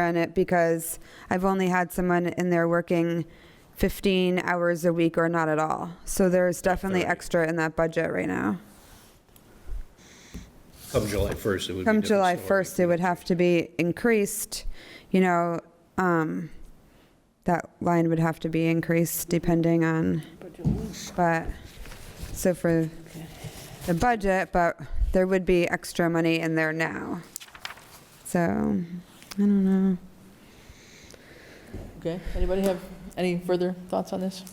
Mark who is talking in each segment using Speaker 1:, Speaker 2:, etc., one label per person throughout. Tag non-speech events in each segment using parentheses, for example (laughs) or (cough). Speaker 1: on it because I've only had someone in there working 15 hours a week or not at all. So there's definitely
Speaker 2: thirty.
Speaker 1: extra in that budget right now.
Speaker 2: Come July 1st, it would be.
Speaker 1: Come
Speaker 2: different
Speaker 1: July
Speaker 2: story.
Speaker 1: 1st, it would have to be increased, you know, um, that line would have to be increased depending on, but, so for the budget, but there would be extra money in there now. So, I don't know.
Speaker 3: Okay, anybody have any further thoughts on this?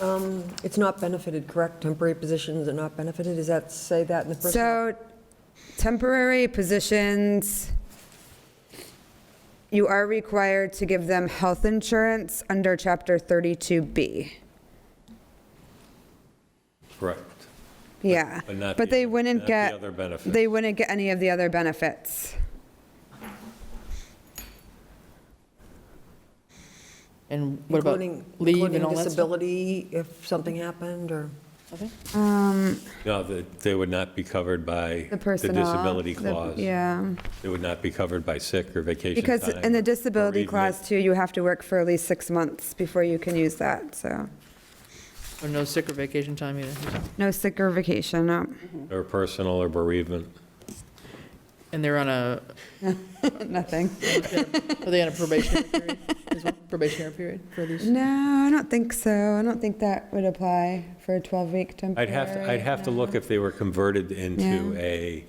Speaker 4: Um, It's not benefited, correct? Temporary positions are not benefited? Does that say that in the first?
Speaker 1: So temporary positions, you are required to give them health insurance under Chapter 32B.
Speaker 2: Correct.
Speaker 1: Yeah.
Speaker 2: But not
Speaker 1: But
Speaker 2: the-
Speaker 1: they wouldn't
Speaker 2: not the
Speaker 1: get.
Speaker 2: other benefits.
Speaker 1: They wouldn't get any of the other benefits.
Speaker 3: And what about
Speaker 4: including-
Speaker 3: leave and
Speaker 4: including
Speaker 3: all that stuff?
Speaker 4: disability, if something happened, or?
Speaker 3: Okay.
Speaker 2: No, the- they would not be covered by
Speaker 1: Um, The
Speaker 2: the
Speaker 1: personnel.
Speaker 2: disability
Speaker 1: the-
Speaker 2: clause.
Speaker 1: Yeah.
Speaker 2: They would not be covered by sick or vacation time.
Speaker 1: Because in the
Speaker 2: or
Speaker 1: disability
Speaker 2: bereavement.
Speaker 1: clause too, you have to work for at least six months before you can use that, so.
Speaker 3: Or Oh, no sick or vacation time either?
Speaker 1: No sick or vacation, no.
Speaker 2: Or personal or bereavement.
Speaker 3: And they're on a,
Speaker 1: Nothing.
Speaker 3: (laughs) are they on a probationary period as well? Probationary period for these?
Speaker 1: No, I don't think so. I don't think that would apply for a 12-week temporary.
Speaker 2: I'd have, to. I'd have to look if they were converted into
Speaker 1: Yeah.
Speaker 2: a,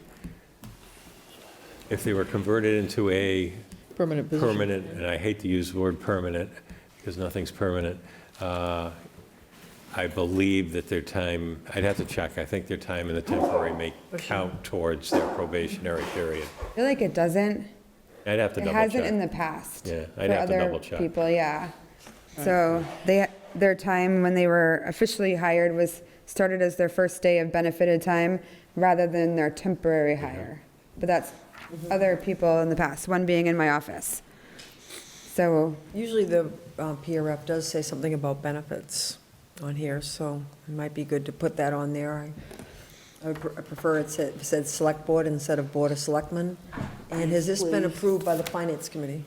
Speaker 2: if they were converted into a
Speaker 3: Permanent position?
Speaker 2: permanent, and I hate to use the word permanent, because nothing's permanent, uh, I believe that their time, I'd have to check, I think their time in the temporary may count towards their probationary period.
Speaker 1: I feel like it doesn't.
Speaker 2: I'd have to
Speaker 1: It
Speaker 2: double check.
Speaker 1: hasn't in the past.
Speaker 2: Yeah, I'd
Speaker 1: for
Speaker 2: have to
Speaker 1: other
Speaker 2: double check.
Speaker 1: People, yeah. So they, their time when they were officially hired was started as their first day of benefited time rather than their temporary hire. But that's
Speaker 3: Mm-hmm.
Speaker 1: other people in the past, one being in my office. So,
Speaker 4: Usually the uh, PRF does say something about benefits on here, so it might be good to put that on there. I- I would pre- I prefer it said, said Select Board instead of Board of Selectmen. And has this been approved by the Finance Committee?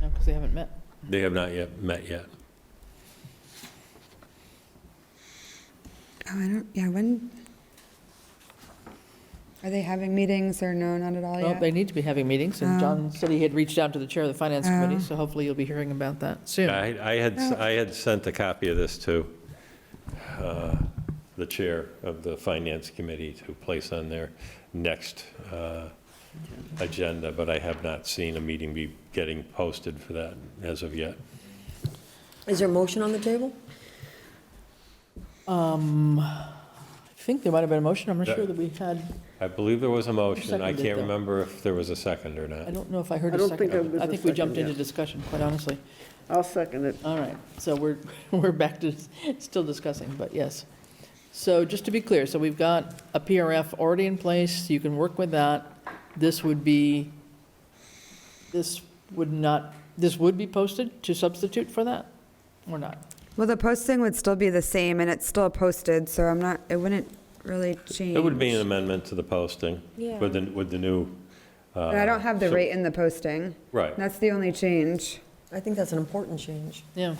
Speaker 3: No, because they haven't met.
Speaker 2: They have not yet met yet.
Speaker 1: oh, I don't, yeah, when? Are they having meetings or no, not at
Speaker 5: Oh,
Speaker 1: all
Speaker 3: Well, they
Speaker 1: yet?
Speaker 3: need to be having meetings, and John said he had reached out to the chair of the
Speaker 5: Oh.
Speaker 3: finance committee, so hopefully you'll be hearing about that soon.
Speaker 2: I, I had,
Speaker 1: Oh.
Speaker 2: I had sent a copy of this to uh, the chair of the finance committee to place on their next uh, agenda, but I have not seen a meeting be getting posted for that as of yet.
Speaker 4: Is there a motion on the table?
Speaker 3: Um, I think there might have been a motion, I'm not sure that we had,
Speaker 2: I believe there was a motion, I
Speaker 3: Seconded,
Speaker 2: can't
Speaker 3: though.
Speaker 2: remember if there was a second or
Speaker 3: I
Speaker 2: not.
Speaker 3: don't know if I heard
Speaker 5: I
Speaker 3: a
Speaker 5: don't
Speaker 3: second.
Speaker 5: think it was
Speaker 3: I
Speaker 5: a
Speaker 3: think we
Speaker 5: second,
Speaker 3: jumped into
Speaker 5: yeah.
Speaker 3: discussion, quite honestly.
Speaker 5: I'll second it.
Speaker 3: All right, so we're, (laughs) we're back to still discussing, but yes. So just to be clear, so we've got a PRF already in place, you can work with that. This would be, this would not, this would be posted to substitute for that, or not?
Speaker 1: Well, the posting would still be the same and it's still posted, so I'm not, it wouldn't really change.
Speaker 2: It would be an amendment to the posting with the, with the new.
Speaker 1: But I don't have the
Speaker 2: so-
Speaker 1: rate in the posting.
Speaker 2: Right.
Speaker 1: That's the only change.
Speaker 4: I think that's an important change.
Speaker 3: Yeah,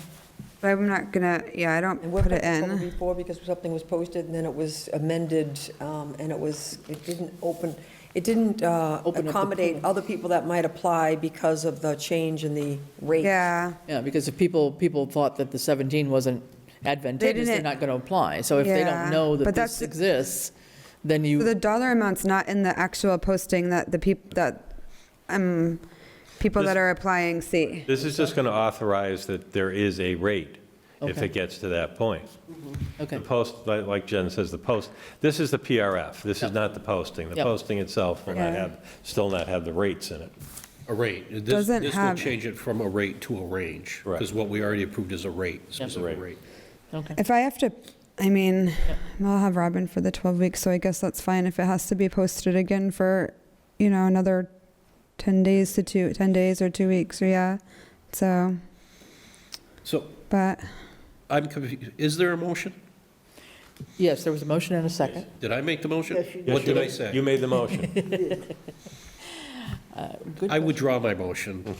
Speaker 1: But I'm not gonna, yeah, I don't
Speaker 4: And we've
Speaker 1: put it
Speaker 4: had this trouble
Speaker 1: in.
Speaker 4: before because something was posted and then it was amended um, and it was, it didn't open, it didn't uh,
Speaker 3: Open up the
Speaker 4: accommodate other people that might apply because of the change in the rate.
Speaker 1: Yeah,
Speaker 3: yeah, because if people, people thought that the 17 wasn't advantageous, they're
Speaker 1: didn't-
Speaker 3: not going to apply. So if they
Speaker 1: Yeah,
Speaker 3: don't know
Speaker 1: but
Speaker 3: that
Speaker 1: that's-
Speaker 3: this exists, then
Speaker 1: So
Speaker 3: you,
Speaker 1: the dollar amount's not in the actual posting that the peop, that, um, people that
Speaker 2: This-
Speaker 1: are applying see.
Speaker 2: This is just going to authorize that there is a rate if
Speaker 3: Okay.
Speaker 2: it gets to that point.
Speaker 3: okay,
Speaker 2: The post, li- like Jen says, the post, this is the PRF, this is not the posting. The
Speaker 3: Yep.
Speaker 2: posting itself will not
Speaker 1: Yeah.
Speaker 2: have, still not have the rates in it.
Speaker 6: A rate. This-
Speaker 1: Doesn't
Speaker 6: This will
Speaker 1: have-
Speaker 6: change it from a rate to a range.
Speaker 2: Correct.
Speaker 6: Because what we already approved is a rate, specific
Speaker 2: Rate.
Speaker 6: rate.
Speaker 3: okay.
Speaker 1: If I have to, I mean, I'll have Robin for the 12 weeks, so I guess that's fine if it has to be posted again for, you know, another 10 days to two, 10 days or two weeks, or yeah, so,
Speaker 6: So
Speaker 1: but.
Speaker 6: I'm confused. Is there a motion?
Speaker 3: Yes, there was a motion and a second.
Speaker 6: Did I make the motion?
Speaker 5: Yes, you
Speaker 2: Yes,
Speaker 6: What
Speaker 2: you
Speaker 6: did I
Speaker 2: ma- You
Speaker 6: say?
Speaker 2: made the motion.
Speaker 3: Good
Speaker 2: Hmm.
Speaker 6: I withdraw my motion.